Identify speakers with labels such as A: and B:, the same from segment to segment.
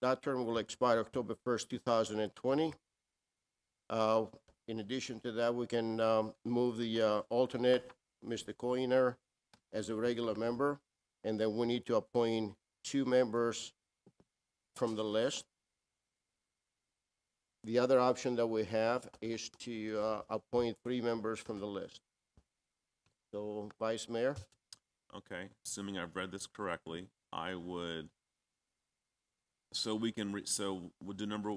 A: That term will expire October first, two thousand and twenty. Uh, in addition to that, we can, um, move the, uh, alternate, Mr. Coiner, as a regular member. And then we need to appoint two members from the list. The other option that we have is to, uh, appoint three members from the list. So, Vice Mayor?
B: Okay, assuming I've read this correctly, I would, so we can, re- so would do number,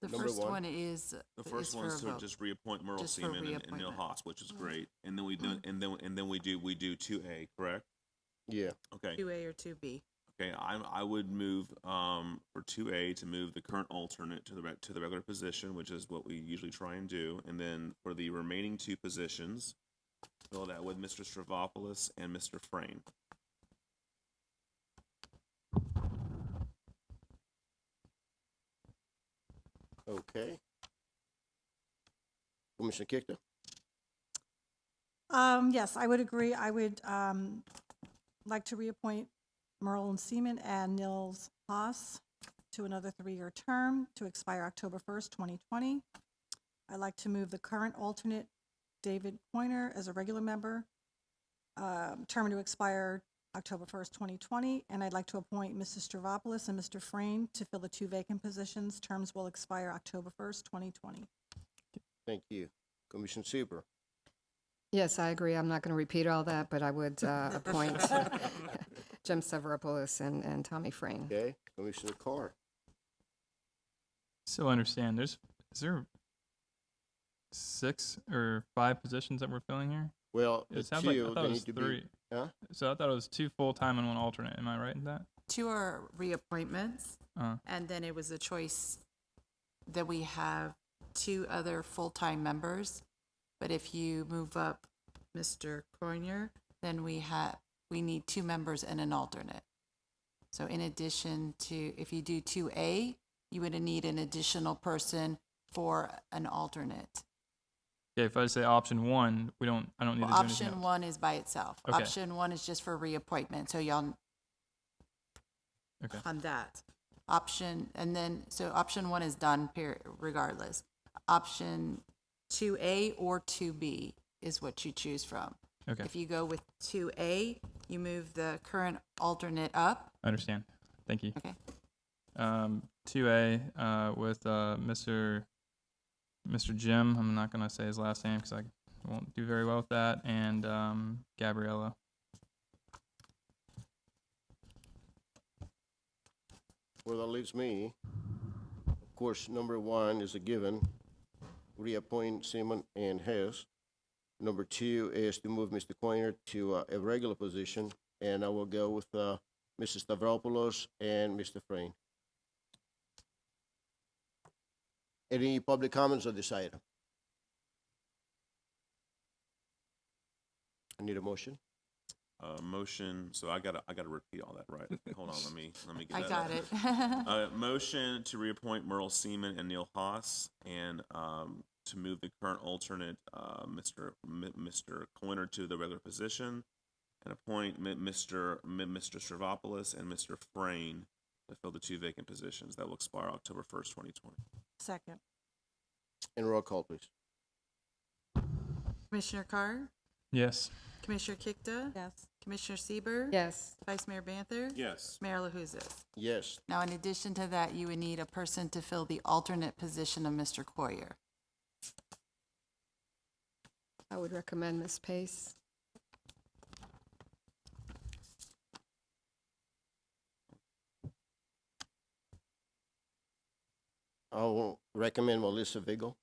C: The
A: Number
C: first
A: one.
C: one is,
B: the
C: is
B: first
C: for
B: one
C: a
B: is to
C: vote.
B: just reappoint Merle
C: Just for
B: Seaman and- and Neil
C: reappointment. Mm-hmm.
B: Haas, which is great. And then we do, and then, and then we do, we do two A, correct?
A: Yeah.
B: Okay,
C: Two A or two B.
B: okay, I, I would move, um, for two A to move the current alternate to the, re- to the regular position, which is what we usually try and do. And then for the remaining two positions, fill that with Mr. Stravopoulos and Mr. Frame.
A: Okay. Commissioner Kikta?
D: Um, yes, I would agree. I would, um, like to reappoint Merle and Seaman and Nils Haas to another three-year term to expire October first, twenty twenty. I'd like to move the current alternate David Pointer as a regular member, um, term to expire October first, twenty twenty, and I'd like to appoint Mrs. Stravopoulos and Mr. Frame to fill the two vacant positions. Terms will expire October first, twenty twenty.
A: Thank you. Commissioner Super?
E: Yes, I agree. I'm not going to repeat all that, but I would uh, appoint Jim Severopoulos and, and Tommy Frame.
A: Okay. Commissioner Carr?
F: Still understand. There's is there six or five positions that we're filling here?
A: Well,
F: It
A: the
F: sounds like I
A: two,
F: thought
A: they
F: it was
A: need to
F: three.
A: be. Huh?
F: So I thought it was two full time and one alternate. Am I right in that?
C: Two are reappointments,
F: Uh,
C: and then it was a choice that we have two other full-time members. But if you move up Mr. Coiner, then we have, we need two members and an alternate. So in addition to, if you do two A, you would need an additional person for an alternate.
F: okay. If I say option one, we don't. I don't need
C: Well,
F: to do anything.
C: option
F: else.
C: one is by itself.
F: Okay.
C: Option one is just for reappointment, so y'all.
F: Okay.
C: On that. Option, and then, so option one is done period, regardless. Option two A or two B is what you choose from.
F: Okay.
C: If you go with two A, you move the current alternate up.
F: I understand. Thank you.
C: Okay.
F: Um, two A uh, with uh, Mr. Mr. Jim. I'm not gonna say his last name because I won't do very well with that. And um, Gabriella.
A: Well, that leaves me. Of course, number one is a given, reappoint Seaman and Hess. Number two is to move Mr. Coiner to uh, a regular position, and I will go with uh, Mrs. Stavropoulos and Mr. Frame. Any public comments on this item? I need a motion.
B: Uh, motion, so I gotta, I gotta repeat all that, right? Hold on, let me, let me get
C: I
B: that.
C: got
B: up.
C: it.
B: Uh, motion to reappoint Merle Seaman and Neil Haas and, um, to move the current alternate, uh, Mr. M- Mr. Coiner to the regular position and appoint Mi- Mr. Mi- Mr. Stravopoulos and Mr. Frayne to fill the two vacant positions that will expire October first, twenty twenty.
D: Second.
A: And roll call, please.
C: Commissioner Carr,
F: Yes.
C: Commissioner Kikta,
D: Yes.
C: Commissioner Sieber,
E: Yes.
C: Vice Mayor Banther.
B: Yes.
C: Mayor LaHousas.
A: Yes,
C: Now, in addition to that, you would need a person to fill the alternate position of Mr. Coyer.
E: I would recommend Ms. Pace.
A: I will recommend Melissa Vigo.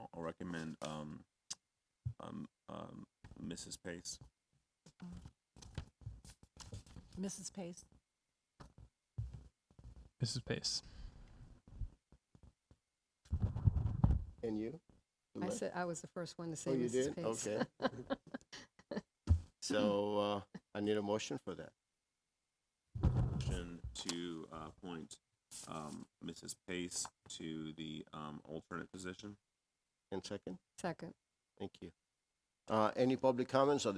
B: I'll recommend, um, um, um, Mrs. Pace.
D: Mrs. Pace.
F: Mrs. Pace.
A: And you?
E: I
A: Lynn?
E: said, I was the first one to say
A: Oh, you
E: Mrs.
A: did?
E: Pace.
A: Okay. So, uh, I need a motion for that.
B: motion to uh, appoint um, Mrs. Pace to the um, alternate position.
A: And second,
E: Second.
A: thank you. Uh, any public comments on